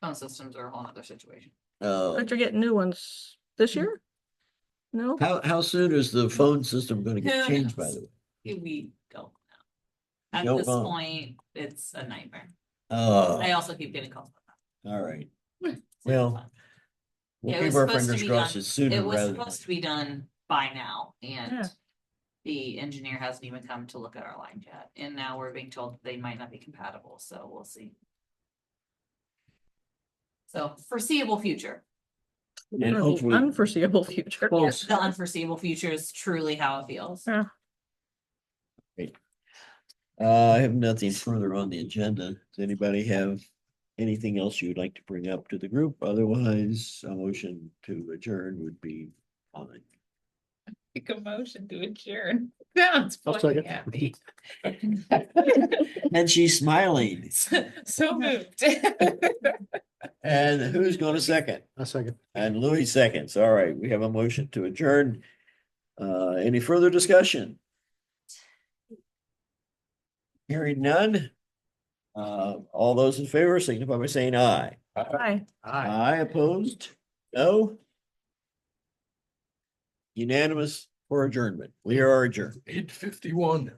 phone systems are a whole other situation. Uh, Aren't you getting new ones this year? No? how, how soon is the phone system gonna get Who changed, by knows? the way? We don't know. At Don't this know. point, it's a nightmare. Oh, I also keep getting calls. about that. all right. So it's Well, fun. Yeah, we'll it keep was our supposed to fingers be crossed done. it's sooner It was rather than. supposed to be done by now Yeah. and the engineer hasn't even come to look at our line yet. And now we're being told they might not be compatible, so we'll see. So foreseeable future, And Or the hopefully- Unforeseeable future. Folks, the unforeseeable future is truly how it feels. Yeah. uh, I have nothing further on the agenda. Does anybody have anything else you would like to bring up to the group? Otherwise, a motion to adjourn would be fine. Make a motion to adjourn. That's fucking happy. And she's smiling. So moved. And who's gonna second? A second. And Louis seconds. All right, we have a motion to adjourn. Uh, any further discussion? Hearing none. Uh, all those in favor signify by saying aye. Hi. Aye. Aye opposed? No? Unanimous for adjournment. We are adjourned. Eight fifty-one.